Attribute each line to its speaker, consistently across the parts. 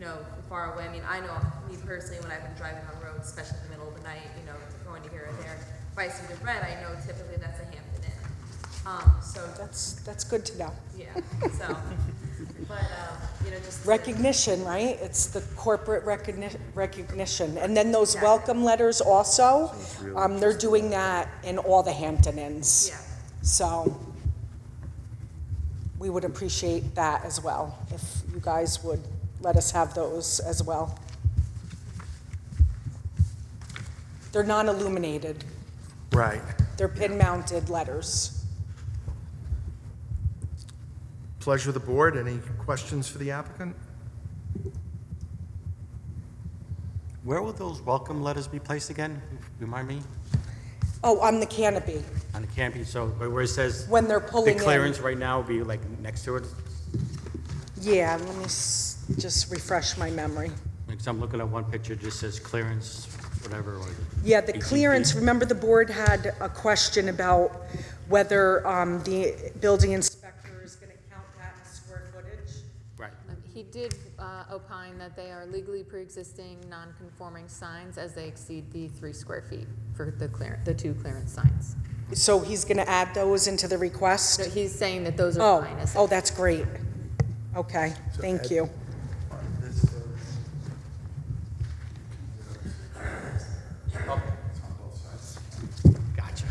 Speaker 1: know, from far away. I mean, I know me personally, when I've been driving on roads, especially in the middle of the night, you know, going to here or there, if I see the red, I know typically that's a Hampton Inn. Um, so,
Speaker 2: That's, that's good to know.
Speaker 1: yeah, so, but, um, you know, just. to-
Speaker 2: Recognition, right? It's the corporate recogni- recognition. And then those
Speaker 1: Exactly.
Speaker 2: welcome letters also, um, they're doing that in all the Hampton Inns.
Speaker 1: Yeah.
Speaker 2: So we would appreciate that as well, if you guys would let us have those as well. They're non-illuminated.
Speaker 3: Right.
Speaker 2: They're pin-mounted letters.
Speaker 3: Pleasure of the board. Any questions for the applicant?
Speaker 4: Where will those welcome letters be placed again? Remind me?
Speaker 2: Oh, on the canopy,
Speaker 4: On the canopy, so where where it says
Speaker 2: when they're pulling
Speaker 4: the
Speaker 2: in.
Speaker 4: clearance right now will be like next to it?
Speaker 2: Yeah, let me s- just refresh my memory.
Speaker 4: Because I'm looking at one picture, it just says clearance, whatever. or
Speaker 2: Yeah, the
Speaker 4: 18 feet.
Speaker 2: clearance, remember the board had a question about whether um, the building inspector is going to count that as square footage?
Speaker 4: Right.
Speaker 5: Um, He did uh, opine that they are legally pre-existing, non-conforming signs as they exceed the three square feet for the clear, the two clearance signs.
Speaker 2: So he's going to add those into the
Speaker 5: So
Speaker 2: request?
Speaker 5: he's saying that those are
Speaker 2: Oh,
Speaker 5: fine. as-
Speaker 2: oh, that's great. Okay, thank you.
Speaker 4: Gotcha.
Speaker 2: Could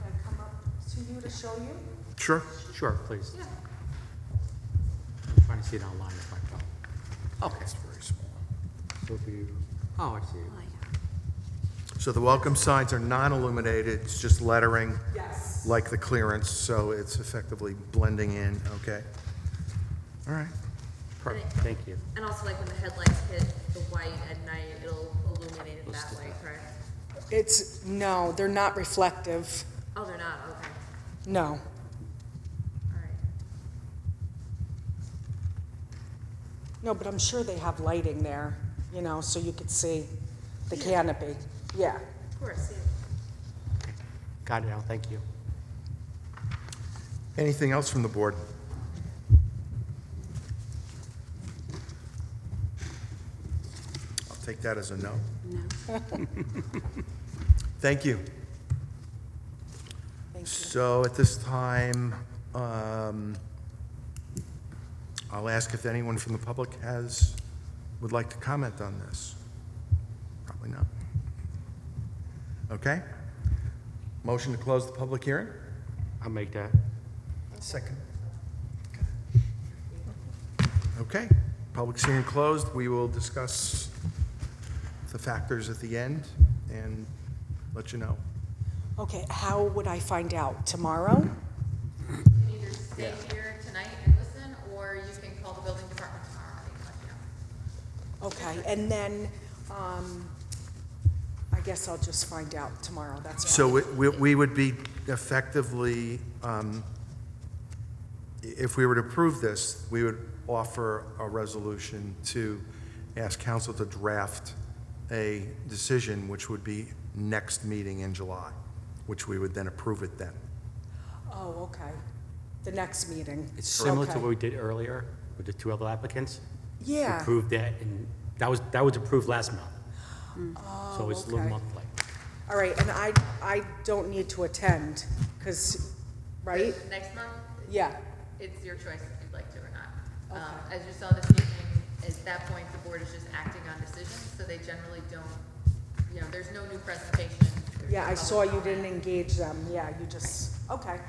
Speaker 2: I come up to you to show you?
Speaker 3: Sure.
Speaker 4: Sure, please. I'm trying to see it online with my phone. Okay. It's very small. So if you, oh, I see.
Speaker 3: So the welcome signs are non-illuminated, it's just lettering
Speaker 2: Yes.
Speaker 3: like the clearance, so it's effectively blending in, okay? All right.
Speaker 4: Perfect, thank you.
Speaker 1: And also like when the headlights hit the white at night, it'll illuminate it that way, correct?
Speaker 2: It's, no, they're not reflective,
Speaker 1: Oh, they're not, okay,
Speaker 2: no.
Speaker 1: all right.
Speaker 2: No, but I'm sure they have lighting there, you know, so you could see the canopy. Yeah.
Speaker 1: Of course, yeah.
Speaker 4: Got it now, thank you.
Speaker 3: Anything else from the board? I'll take that as a no. No.
Speaker 2: Thank
Speaker 3: Thank you.
Speaker 2: you.
Speaker 3: So at this time, um, I'll ask if anyone from the public has, would like to comment on this. Probably not. Okay? Motion to close the public hearing?
Speaker 4: I'll make that.
Speaker 3: Second. Okay, public hearing closed. We will discuss the factors at the end and let you know.
Speaker 2: Okay, how would I find out? Tomorrow?
Speaker 5: You can either stay here tonight and listen, or you can call the building department tomorrow. and they can let you know.
Speaker 2: Okay, and then, um, I guess I'll just find out tomorrow, that's fine.
Speaker 3: So we- we we would be effectively, um, i- if we were to approve this, we would offer a resolution to ask council to draft a decision, which would be next meeting in July, which we would then approve it then.
Speaker 2: Oh, okay. The next meeting.
Speaker 4: It's similar to
Speaker 2: Okay.
Speaker 4: what we did earlier with the two other applicants.
Speaker 2: Yeah.
Speaker 4: Approved that, and that was, that was approved last month. So it's a
Speaker 2: Mm. Oh,
Speaker 4: little
Speaker 2: okay.
Speaker 4: monthly.
Speaker 2: All right, and I, I don't need to attend, because, right?
Speaker 5: Next month,
Speaker 2: Yeah,
Speaker 5: it's your choice if you'd like to or not. Um,
Speaker 2: Okay.
Speaker 5: As you saw this evening, at that point, the board is just acting on decisions, so they generally don't, you know, there's no new presentation. There's
Speaker 2: yeah,
Speaker 5: no
Speaker 2: I saw
Speaker 5: public
Speaker 2: you
Speaker 5: comment.
Speaker 2: didn't engage them, yeah, you just, okay.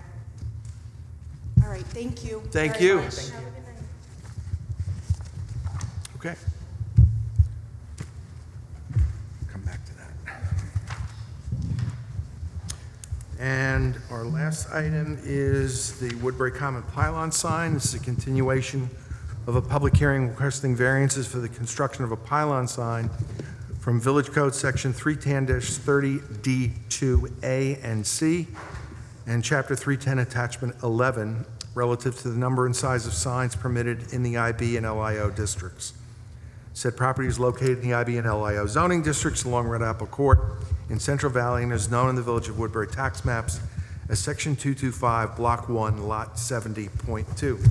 Speaker 2: All right, thank you.
Speaker 3: Thank
Speaker 2: very
Speaker 3: you.
Speaker 2: much.
Speaker 3: Okay. Come back to that. And our last item is the Woodbury Common Pylon sign. This is a continuation of a public hearing requesting variances for the construction of a pylon sign from Village Code Section 310-30D2A and C and Chapter 310 Attachment 11 relative to the number and size of signs permitted in the IB and LIO districts. Said property is located in the IB and LIO zoning districts along Red Apple Court in Central Valley and is known in the Village of Woodbury tax maps as Section 225, Block 1, Lot 70.2.